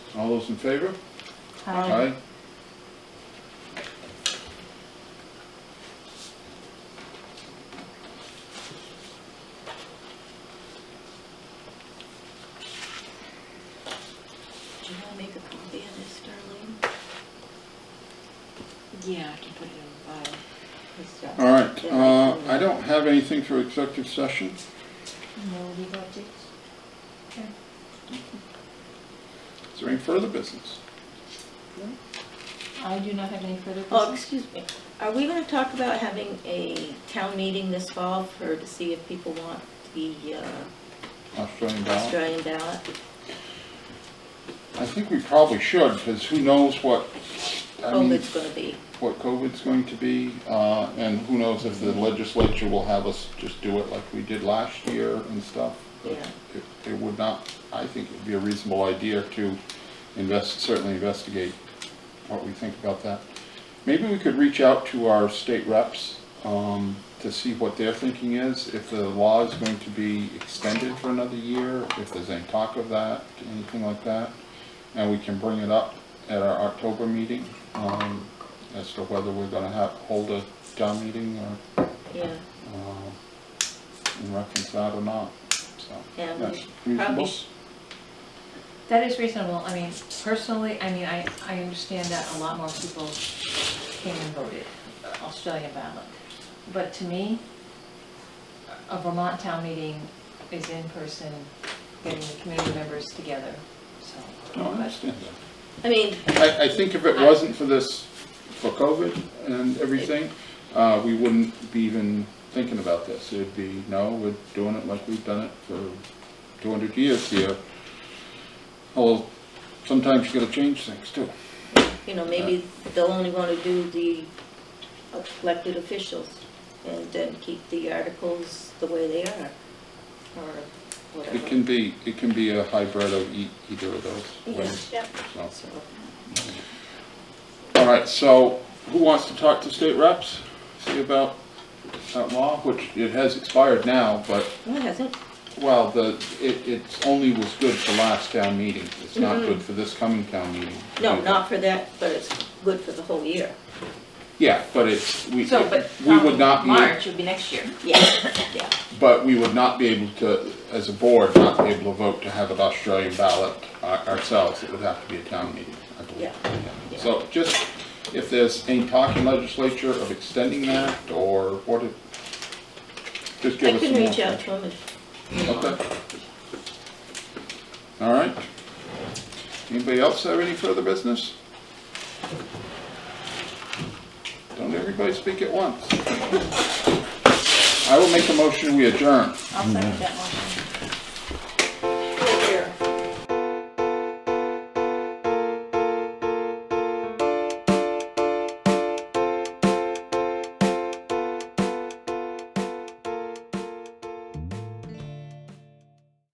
All those in favor? Aye. Do you want to make a copy of this, Darlene? Yeah, I can put it in the file. It's, uh, All right, uh, I don't have anything for executive session. No legal updates? Is there any further business? I do not have any further Oh, business. excuse me, are we gonna talk about having a town meeting this fall for, to see if people want the uh, Australian ballot? Australian ballot? I think we probably should, because who knows what, I mean, COVID's Oh, gonna be, what COVID's going to be, uh, and who knows if the legislature will have us just do it like we did last year and stuff. But Yeah. it- It would not, I think it'd be a reasonable idea to invest, certainly investigate what we think about that. Maybe we could reach out to our state reps, um, to see what their thinking is, if the law is going to be extended for another year, if there's any talk of that, anything like that. And we can bring it up at our October meeting, um, as to whether we're gonna have, hold a town meeting or, yeah, uh, in reference to that or not, so. Yeah, we that's should reasonable. probably sh- That is reasonable. I mean, personally, I mean, I, I understand that a lot more people came and voted uh, Australian ballot. But to me, a Vermont town meeting is in person, getting the community members together, so. No, I understand that. I mean, I, I think if it wasn't for this, for COVID and everything, uh, we wouldn't be even thinking about this. It'd be, no, we're doing it like we've done it for two hundred years here. Although, sometimes you gotta change things too. you know, maybe they'll only wanna do the elected officials and then keep the articles the way they are, or It can whatever. be, it can be a hybrid of e- either of those Yeah, ways, yeah, so. so, All right, so who wants to talk to state reps? See about that law, which it has expired now, but no, it hasn't, Well, the, it, it's only was good for last town meeting, it's not good for this coming town meeting. no, not for that, but it's good for the whole year, Yeah, but it's, we, So, but. we would um, not be, March would be next year. yeah, yeah. but we would not be able to, as a board, not be able to vote to have an Australian ballot our- ourselves, it would have to be a town meeting, I believe. Yeah, yeah. So just, if there's any talk in legislature of extending that, or what it, just give I us can some more. reach out to him if Okay. All right. Anybody else have any further business? Don't everybody speak at once. I will make a motion, we adjourn. I'll second that motion. Mm-hmm.